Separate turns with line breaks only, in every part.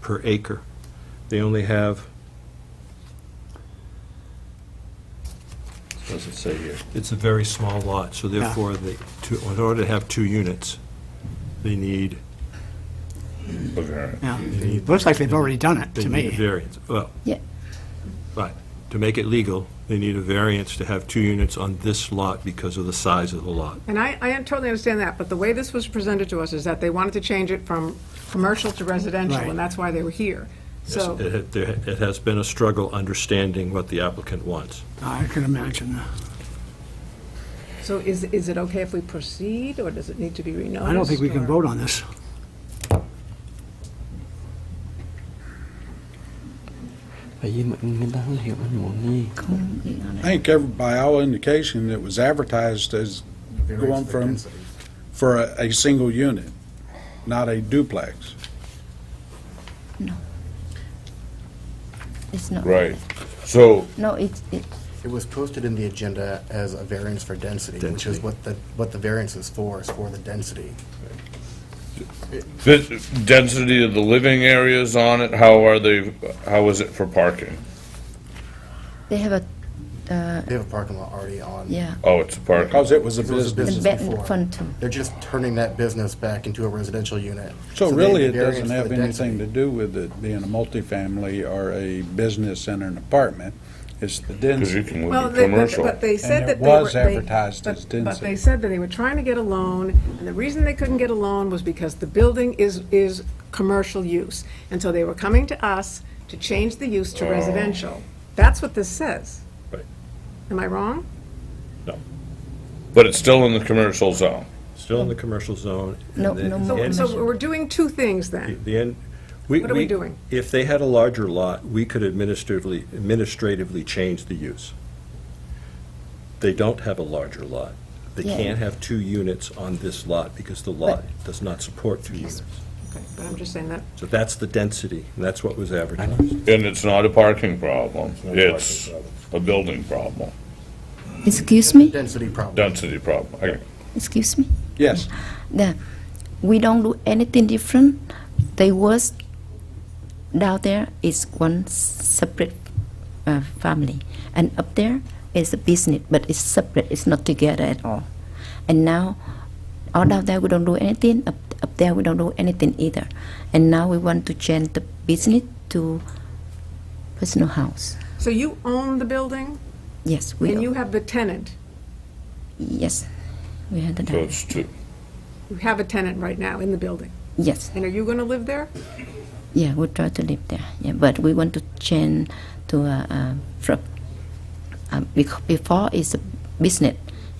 per acre. They only have,
What does it say here?
it's a very small lot, so therefore, they, to- in order to have two units, they need,
Look at her.
Yeah,
they need
looks like they've already done it,
They
to
need a
me.
variance, well.
Yeah.
But to make it legal, they need a variance to have two units on this lot because of the size of the lot.
And I, I totally understand that, but the way this was presented to us is that they wanted to change it from commercial to residential,
Right.
and that's why they were here. So,
It had- there- it has been a struggle understanding what the applicant wants.
I can imagine.
so is, is it okay if we proceed, or does it need to be renoticed?
I don't think we can
or-
vote on this.
Bởi vì mọi người ta không hiểu anh muốn gì
Không, ý là
I
này.
think every, by all indication, it was advertised as going from, for a, a single unit, not a duplex.
It's not.
Right. So,
No, it's, it,
It was posted in the agenda as a variance for density, which is
Density.
what the, what the variance is for, is for the density.
the density of the living areas on it, how are they, how is it for parking?
they have a, uh,
They have a parking lot already on.
yeah,
Oh, it's a parking.
Because it was a
It was a
business.
the
This is
bed
before.
fund two.
They're just turning that business back into a residential unit.
So
they-
really, it
the variance
doesn't
for
have
the
anything
density-
to do with it being a multifamily or a business and an apartment. It's the
Because you
density.
can
Well,
live
they-
in
but
commercial.
but they said
it
that they were...
was
they-
advertised as
but- But
density.
they said that they were trying to get a loan, and the reason they couldn't get a loan was because the building is, is commercial use. And so they were coming to us to change the use to residential. That's what this says.
Oh. Right.
Am I wrong?
But it's still in the commercial zone.
Still in the commercial zone. and
No-
then
no
the
more
So,
end-
so we're doing two things
The
then.
the end, we.
What are we doing?
If they had a larger lot, we could administratively, administratively change the use. They don't have a larger lot. They
Yeah.
can't have two units on this lot because the lot does not support two units.
Okay, But I'm just saying that,
So that's the density, and that's what was advertised.
And it's not a parking problem.
not a
It's a building problem,
Excuse me,
Density problem.
density problem. Okay.
excuse me.
Yes.
Yeah, we don't do anything different. They was down there is one separate uh, family, and up there is a business, but it's separate. It's not together at all. And now, all down there we don't do anything. Up up there we don't do anything either. And now we want to change the business to personal house.
so you own the building,
Yes, we.
and
are-
you have the tenant.
yes, we had
So
that.
it's two.
You have a tenant right now in the building.
Yes.
And are you going to live there?
Yeah, we try to live there. Yeah, but we want to change to a, a from um, bec- before it's a business,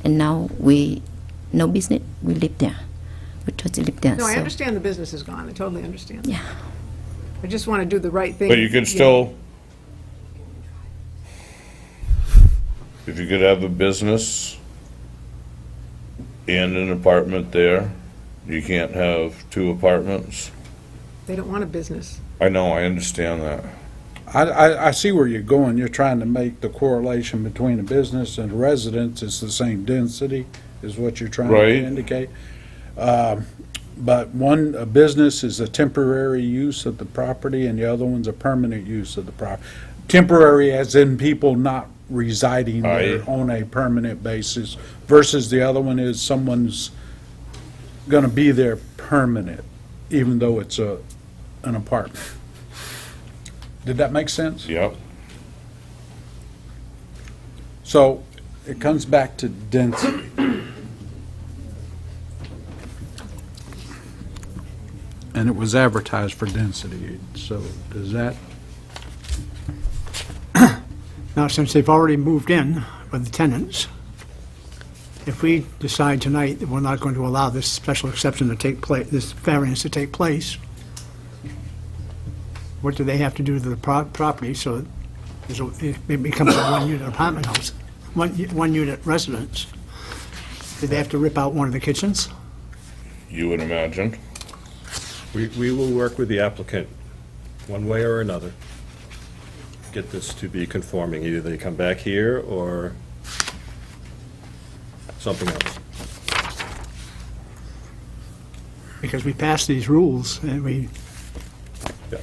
and now we no business. We live there. We try to live there.
No, I
so-
understand the business is gone. I totally understand.
Yeah.
I just want to do the right thing.
But you could still, if you could have a business and an apartment there, you can't have two apartments.
They don't want a business.
I know, I understand that.
I, I, I see where you're going. You're trying to make the correlation between a business and a residence. It's the same density, is what you're trying
Right.
to indicate. Um, But one, a business is a temporary use of the property, and the other one's a permanent use of the property. Temporary as in people not residing there
Aye.
on a permanent basis versus the other one is someone's gonna be there permanent, even though it's a, an apartment. Did that make sense?
Yep.
So it comes back to density. And it was advertised for density, so does that,
Now, since they've already moved in with the tenants, if we decide tonight that we're not going to allow this special exception to take place, this variance to take place, what do they have to do to the pro- property so there's a- it becomes a one-unit apartment house, one- one-unit residence? Do they have to rip out one of the kitchens?
You would imagine.
We, we will work with the applicant, one way or another, get this to be conforming. Either they come back here or something else.
Because we passed these rules and we
Yeah.